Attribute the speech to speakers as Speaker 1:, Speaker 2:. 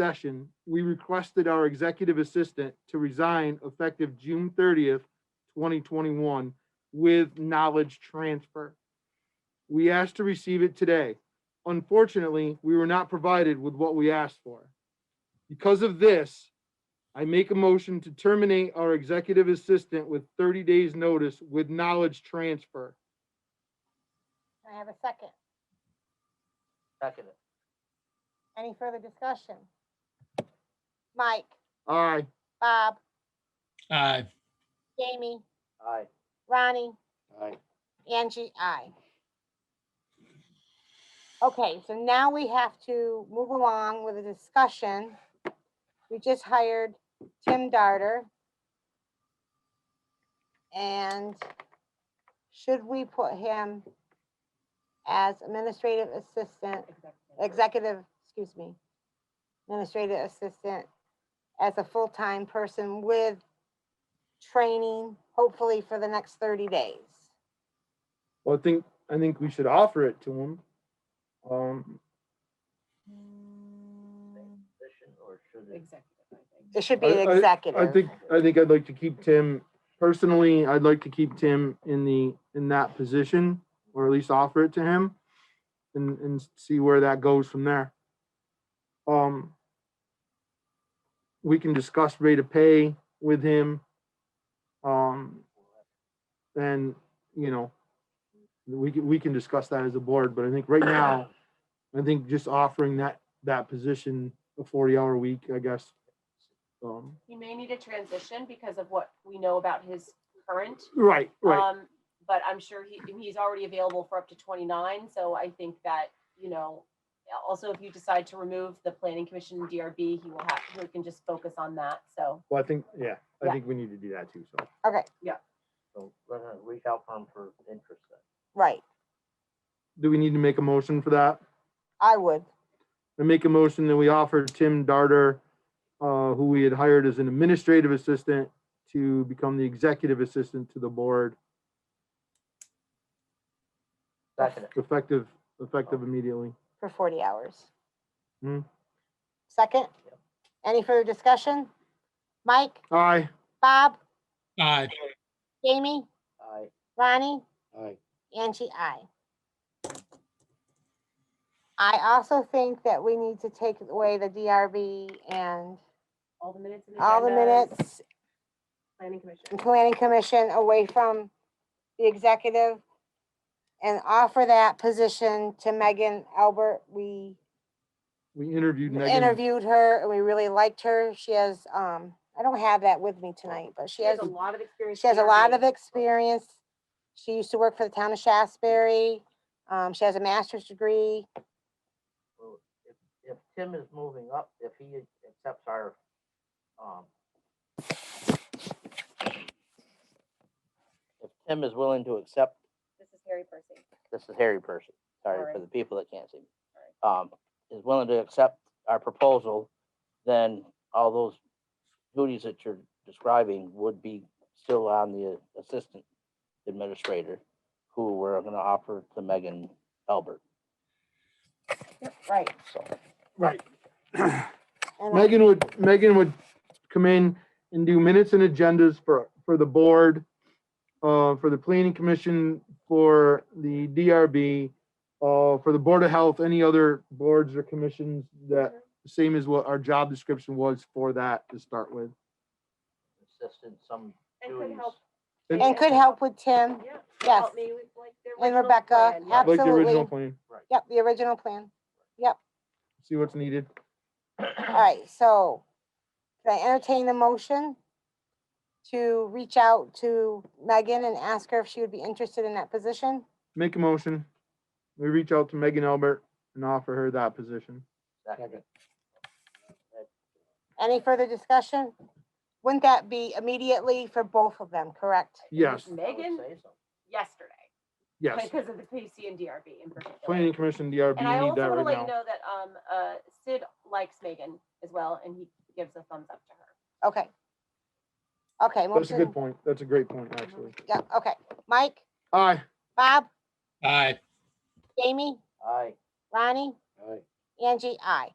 Speaker 1: session, we requested our executive assistant to resign effective June thirtieth, twenty twenty-one with knowledge transfer. We asked to receive it today. Unfortunately, we were not provided with what we asked for. Because of this, I make a motion to terminate our executive assistant with thirty days' notice with knowledge transfer.
Speaker 2: Can I have a second?
Speaker 3: Second.
Speaker 2: Any further discussion? Mike,
Speaker 1: Aye.
Speaker 2: Bob,
Speaker 4: Aye,
Speaker 2: Jamie,
Speaker 3: Aye.
Speaker 2: Ronnie,
Speaker 3: Aye.
Speaker 2: Angie, I. Okay, so now we have to move along with a discussion. We just hired Tim Darter. And should we put him as administrative assistant, executive, excuse me, administrative assistant as a full-time person with training, hopefully for the next 30 days?
Speaker 1: Well, I think, I think we should offer it to him. Um,
Speaker 3: Position or should it?
Speaker 5: Executive, I think.
Speaker 2: It should
Speaker 1: I-
Speaker 2: be an
Speaker 1: I-
Speaker 2: executive.
Speaker 1: I think, I think I'd like to keep Tim, personally, I'd like to keep Tim in the, in that position, or at least offer it to him. And, and see where that goes from there. Um. We can discuss rate of pay with him. Um. And, you know. We can, we can discuss that as a board, but I think right now, I think just offering that, that position, a forty hour week, I guess. Um,
Speaker 5: He may need a transition because of what we know about his current.
Speaker 1: Right, right.
Speaker 5: um, But I'm sure he, and he's already available for up to twenty-nine, so I think that, you know, also if you decide to remove the planning commission and DRB, he will have, he can just focus on that, so.
Speaker 1: Well, I think, yeah, I
Speaker 5: Yeah.
Speaker 1: think we need to do that too, so.
Speaker 3: So we're gonna reach out for him for interest then.
Speaker 2: Right,
Speaker 1: Do we need to make a motion for that?
Speaker 2: I would.
Speaker 1: I make a motion that we offer Tim Darter, uh, who we had hired as an administrative assistant to become the executive assistant to the board,
Speaker 3: Second.
Speaker 1: effective, effective immediately.
Speaker 2: For 40 hours.
Speaker 1: Hmm.
Speaker 2: Second?
Speaker 3: Yep.
Speaker 2: Any further discussion? Mike,
Speaker 1: Aye,
Speaker 2: Bob,
Speaker 4: aye,
Speaker 2: Jamie,
Speaker 3: Aye.
Speaker 2: Ronnie,
Speaker 3: Aye.
Speaker 2: Angie, I. I also think that we need to take away the DRB and
Speaker 5: All the minutes. and
Speaker 2: all the
Speaker 5: agendas,
Speaker 2: minutes
Speaker 5: Planning commission.
Speaker 2: and planning commission away from the executive and offer that position to Megan Albert. We
Speaker 1: we interviewed Megan.
Speaker 2: interviewed her and we really liked her. She has, um, I don't have that with me tonight, but she has,
Speaker 5: a lot of experience.
Speaker 2: she has a lot of
Speaker 5: DRB.
Speaker 2: experience. She used to work for the town of Shasberry. Um, she has a master's degree.
Speaker 3: Well, If, if Tim is moving up, if he accepts our, um, if Tim is willing to accept,
Speaker 5: This is Harry Percy.
Speaker 3: this is Harry Person, sorry for
Speaker 5: Sorry.
Speaker 3: the people that can't see me. Um, is willing to accept our proposal, then all those duties that you're describing would be still on the assistant administrator, who we're gonna offer to Megan Albert,
Speaker 2: Right.
Speaker 3: so.
Speaker 1: Right.
Speaker 2: And I-
Speaker 1: Megan would, Megan would come in and do minutes and agendas for, for the board, uh, for the planning commission, for the DRB, uh, for the Board of Health, any other boards or commissions that, same as what our job description was for that to start with.
Speaker 3: assistant, some
Speaker 5: And could
Speaker 3: duties.
Speaker 5: help,
Speaker 2: and could help with Tim.
Speaker 5: yeah. could
Speaker 2: Yes.
Speaker 5: help me with, like, the
Speaker 2: And
Speaker 5: original
Speaker 2: Rebecca,
Speaker 5: plan, yeah.
Speaker 1: Like the original
Speaker 2: absolutely.
Speaker 1: plan,
Speaker 2: Yep, the original plan.
Speaker 1: see what's needed.
Speaker 2: All right, so can I entertain the motion to reach out to Megan and ask her if she would be interested in that position?
Speaker 1: Make a motion. We reach out to Megan Albert and offer her that position.
Speaker 3: Second.
Speaker 2: Any further discussion? Wouldn't that be immediately for both of them, correct?
Speaker 1: Yes,
Speaker 3: I would
Speaker 5: Megan?
Speaker 3: say so.
Speaker 5: Yesterday,
Speaker 1: yes.
Speaker 5: because of the PC and DRB in particular.
Speaker 1: Planning commission, DRB,
Speaker 5: And I
Speaker 1: need
Speaker 5: also
Speaker 1: that
Speaker 5: want to let
Speaker 1: right
Speaker 5: you
Speaker 1: now.
Speaker 5: know that um uh Sid likes Megan as well, and he gives a thumbs up to her.
Speaker 2: Okay. Okay,
Speaker 1: That's a good
Speaker 2: motion,
Speaker 1: point. That's a great point, actually.
Speaker 2: yeah, okay. Mike,
Speaker 1: Aye.
Speaker 2: Bob,
Speaker 4: aye.
Speaker 2: Jamie,
Speaker 3: Aye.
Speaker 2: Ronnie,
Speaker 3: Aye.
Speaker 2: Angie, I.